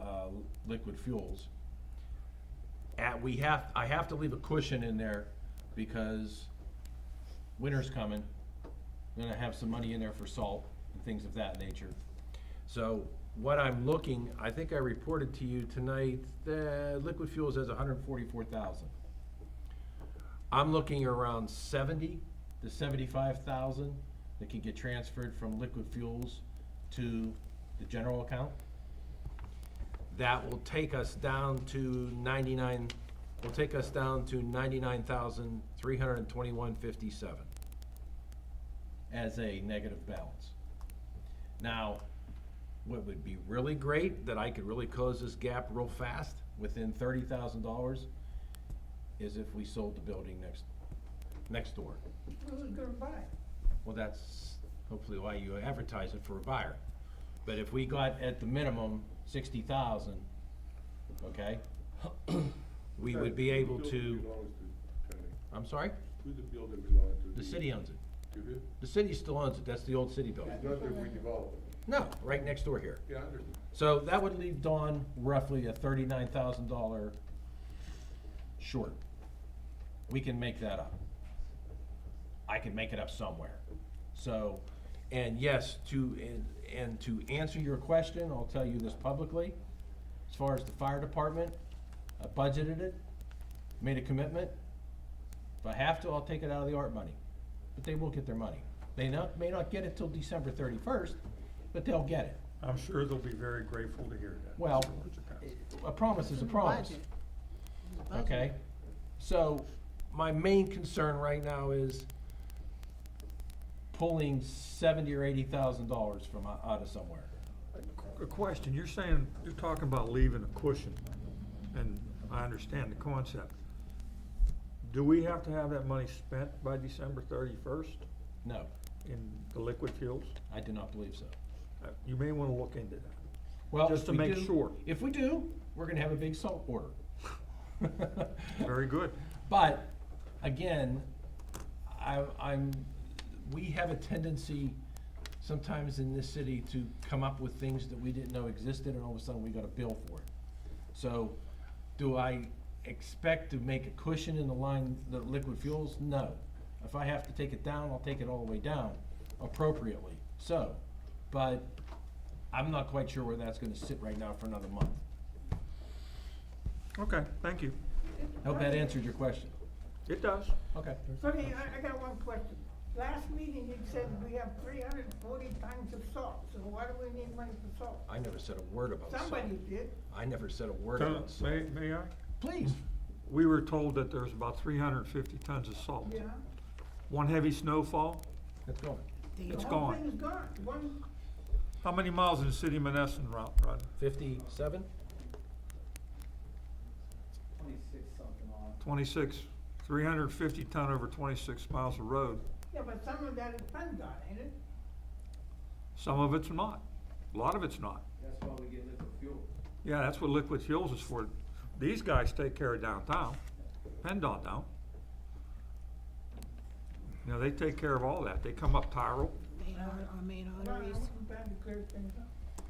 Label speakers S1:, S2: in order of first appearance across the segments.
S1: uh, liquid fuels. At, we have, I have to leave a cushion in there because winter's coming. Then I have some money in there for salt and things of that nature. So what I'm looking, I think I reported to you tonight, that liquid fuels has hundred and forty-four thousand. I'm looking around seventy to seventy-five thousand that can get transferred from liquid fuels to the general account. That will take us down to ninety-nine, will take us down to ninety-nine thousand, three hundred and twenty-one fifty-seven as a negative balance. Now, what would be really great, that I could really close this gap real fast, within thirty thousand dollars, is if we sold the building next, next door.
S2: Who's gonna buy?
S1: Well, that's hopefully why you advertise it for a buyer. But if we got at the minimum sixty thousand, okay? We would be able to, I'm sorry,
S3: Who the building belongs to?
S1: the city owns it.
S3: To who?
S1: The city still owns it, that's the old city building.
S3: It's not that we developed it.
S1: No, right next door here.
S3: Yeah, I understand.
S1: So that would leave Dawn roughly a thirty-nine thousand dollar short. We can make that up. I can make it up somewhere. So, and yes, to, and, and to answer your question, I'll tell you this publicly. As far as the fire department, I budgeted it, made a commitment. If I have to, I'll take it out of the art money, but they will get their money. They not, may not get it till December thirty-first, but they'll get it.
S4: I'm sure they'll be very grateful to hear that.
S1: Well,
S4: Mr. Wojciechowski.
S1: a promise is a promise, okay? So, my main concern right now is pulling seventy or eighty thousand dollars from, o- out of somewhere.
S4: A question, you're saying, you're talking about leaving a cushion, and I understand the concept. Do we have to have that money spent by December thirty-first
S1: No,
S4: in the liquid fuels?
S1: I do not believe so.
S4: Uh, You may wanna look into that.
S1: Well,
S4: Just
S1: if
S4: to
S1: we
S4: make
S1: do-
S4: sure.
S1: If we do, we're gonna have a big salt order.
S4: Very good.
S1: But, again, I, I'm, we have a tendency sometimes in this city to come up with things that we didn't know existed and all of a sudden we got a bill for it. So, do I expect to make a cushion in the line, the liquid fuels? No. If I have to take it down, I'll take it all the way down appropriately, so, but I'm not quite sure where that's gonna sit right now for another month.
S4: Okay, thank you.
S1: Hope that answered your question.
S4: It does.
S1: Okay.
S2: Sonny, I, I got one question. Last meeting, you said we have three hundred and forty tons of salt, so why do we need money for salt?
S1: I never said a word about salt.
S2: Somebody did.
S1: I never said a word
S4: Tom,
S1: about salt.
S4: May, may I?
S1: Please.
S4: We were told that there's about three hundred and fifty tons of salt.
S2: Yeah.
S4: One heavy snowfall,
S1: Let's go.
S4: it's
S2: The whole
S4: gone.
S2: thing's gone. One,
S4: How many miles in the city of Menneson, Rod? Rod?
S1: Fifty-seven?
S5: Twenty-six something on.
S4: Twenty-six, three hundred and fifty ton over twenty-six miles of road.
S2: yeah, but some of that is PennDOT, ain't it?
S4: Some of it's not. A lot of it's not.
S5: That's why we get liquid fuel.
S4: Yeah, that's what liquid fuels is for. These guys take care of downtown. PennDOT don't. You know, they take care of all that. They come up Tyrell,
S6: Main artery, our main
S2: No,
S6: arteries.
S2: I'm trying to clear things up.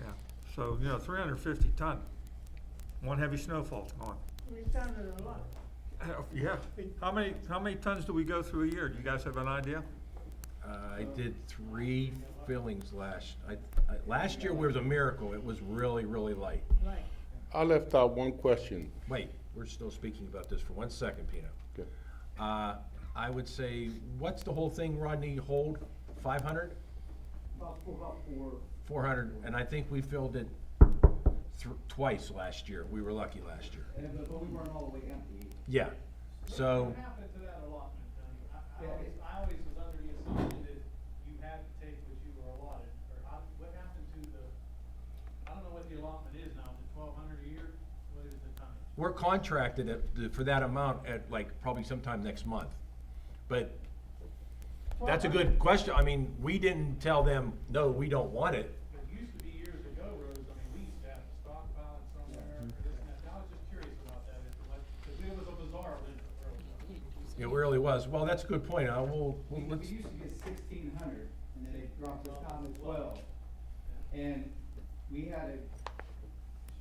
S4: yeah. So, you know, three hundred and fifty ton. One heavy snowfall's gone.
S2: We sounded a lot.
S4: Yeah. How many, how many tons do we go through a year? Do you guys have an idea?
S1: I did three fillings last, I, I, last year was a miracle. It was really, really light.
S2: Right.
S3: I left out one question.
S1: Wait, we're still speaking about this for one second, Pino.
S3: Okay.
S1: Uh, I would say, what's the whole thing, Rodney, hold? Five hundred?
S5: About four, about four.
S1: Four hundred? And I think we filled it thr- twice last year. We were lucky last year.
S5: And, but, but we weren't all the way empty either.
S1: Yeah, so.
S7: What happened to that allotment, Tony? I, I
S5: Yeah,
S7: always,
S5: it-
S7: I always was under the assumption that you had to take what you were allotted, or how, what happened to the, I don't know what the allotment is now, is it twelve hundred a year? What is the tonnage?
S1: We're contracted at, the- for that amount at like probably sometime next month. But that's a good question. I mean, we didn't tell them, no, we don't want it.
S7: It used to be years ago, Rose, I mean, we used to have to stockpile it somewhere, or this and that, I was just curious about that, if it was, because it was a bizarre event for Rose.
S1: It really was. Well, that's a good point. I will, well,
S5: We, we
S1: let's,
S5: used to get sixteen hundred, and then they dropped us down to twelve. And we had a